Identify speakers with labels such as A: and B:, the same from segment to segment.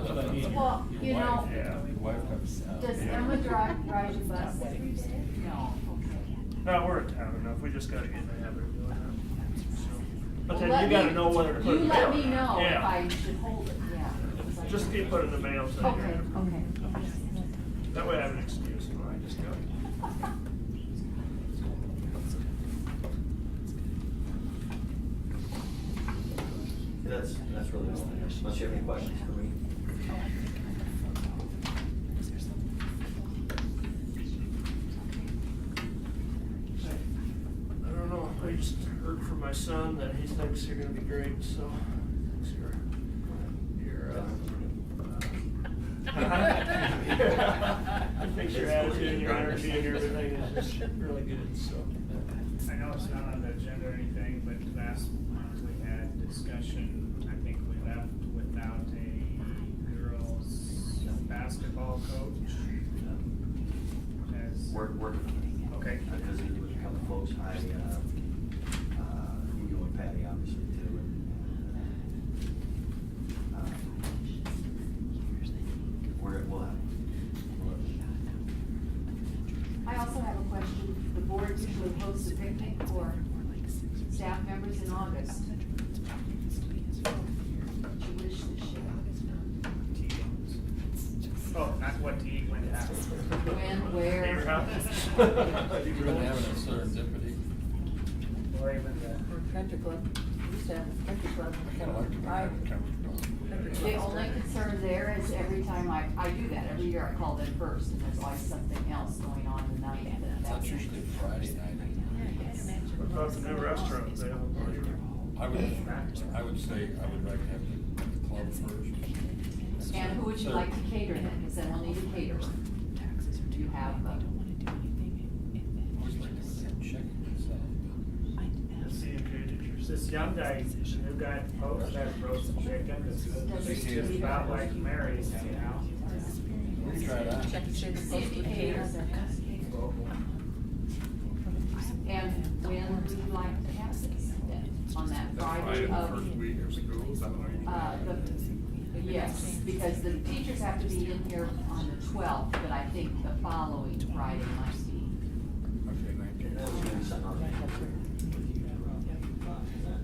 A: Well, you know, does Emma drive, ride your bus? No.
B: No, we're in town enough, we just gotta get in the habit of doing that. So, But
A: Well,
B: then
A: let
B: you gotta
A: me-
B: know whether to put it
A: You
B: in.
A: let me know if I
B: Yeah,
A: should hold it, yeah.
B: just get put it in the mail, so you
A: Okay, okay.
B: that way I have an excuse, you know, I just go.
C: That's, that's really all I have, unless you have any questions for me.
B: I don't know, I just heard from my son that he thinks you're gonna be great, so, thanks, you're, you're, uh. Thanks, your attitude, your energy, and everything is just really good, so.
D: I know it's not on the agenda or anything, but last month we had discussion, I think we left without a girls basketball coach. As-
C: Work, work.
D: Okay.
C: I visited with a couple folks, I, uh, uh, you go with Patty, obviously, too, and, and, uh, um, we're, we'll have, we'll have-
A: I also have a question. The board usually hosts a picnic for staff members in August. What's your wish this year?
D: Oh, not what to eat, when to ask.
A: When, where?
D: At your house?
E: You're gonna have a serendipity.
D: Or even the-
F: Or Country club, we used to have a country club.
E: I kinda like to
F: I-
E: drive a country
A: The only concern there is every time I, I do that, every year I call them first and there's always something else going on the night. and
E: club. That's usually Friday night.
B: What about the new restaurant they have over here?
E: I would, I would say, I would like to have the club first.
A: And who would you like to cater then? Because then we'll need a caterer. Do you have uh, a?
E: I always like to have chicken salad.
D: Let's see if you- This young guy, the new guy at Pope's, that roasted chicken, it's, it's just about like Mary's, you know?
E: We can try that.
F: Check to see if the
A: See if he
F: postal
A: caters.
F: caters.
A: And when would you like to have this then? On that Friday of,
G: week of school, is that what you-
A: uh, the, yes, because the teachers have to be in here on the twelfth, but I think the following Friday might be.
E: Okay, thank you.
C: that was gonna be something on the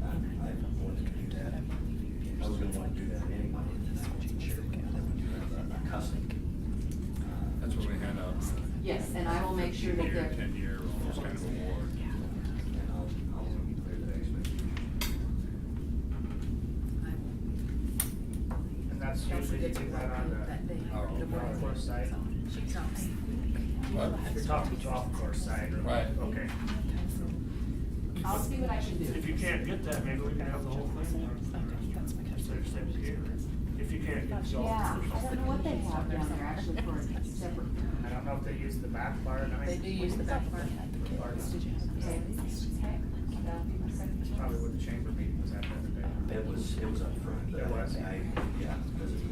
C: I, I wanted to do that. I was gonna wanna do that anyway. Custom. Uh,
G: That's when we hand out.
A: Yes, and I will make sure that
G: Year,
A: they're.
G: ten year, all those kind of awards.
C: And I'll, I'll clear the
D: And that's usually you do that on the golf course side.
E: What?
D: You're talking golf course side, right?
E: Right.
D: Okay.
A: I'll see what I can do.
B: If you can't get that, maybe we can have the whole thing. Just have same caterer. If you can't get
A: Yeah,
B: golf.
A: I don't know what they have down there actually for a separate.
D: I don't know if they use the back bar or not.
F: They do use the back part.
D: Or not.
A: Okay, okay, that'll be my second choice.
D: Probably where the chamber meeting was at the other day.
C: It was, it was up front. but
D: It was?
C: I, yeah, because it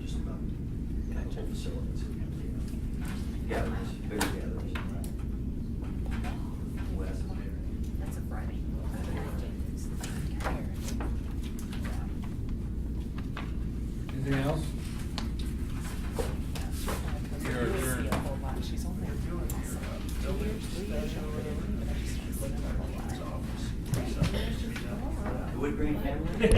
C: just about, yeah, the whole facilities. Gatherings, bigger gatherings. West.
F: That's a Friday.
E: Anything else? You're adjourned.
F: She's only.
B: You're doing your, uh, building special or whatever. It's office.
C: Wood Grain family?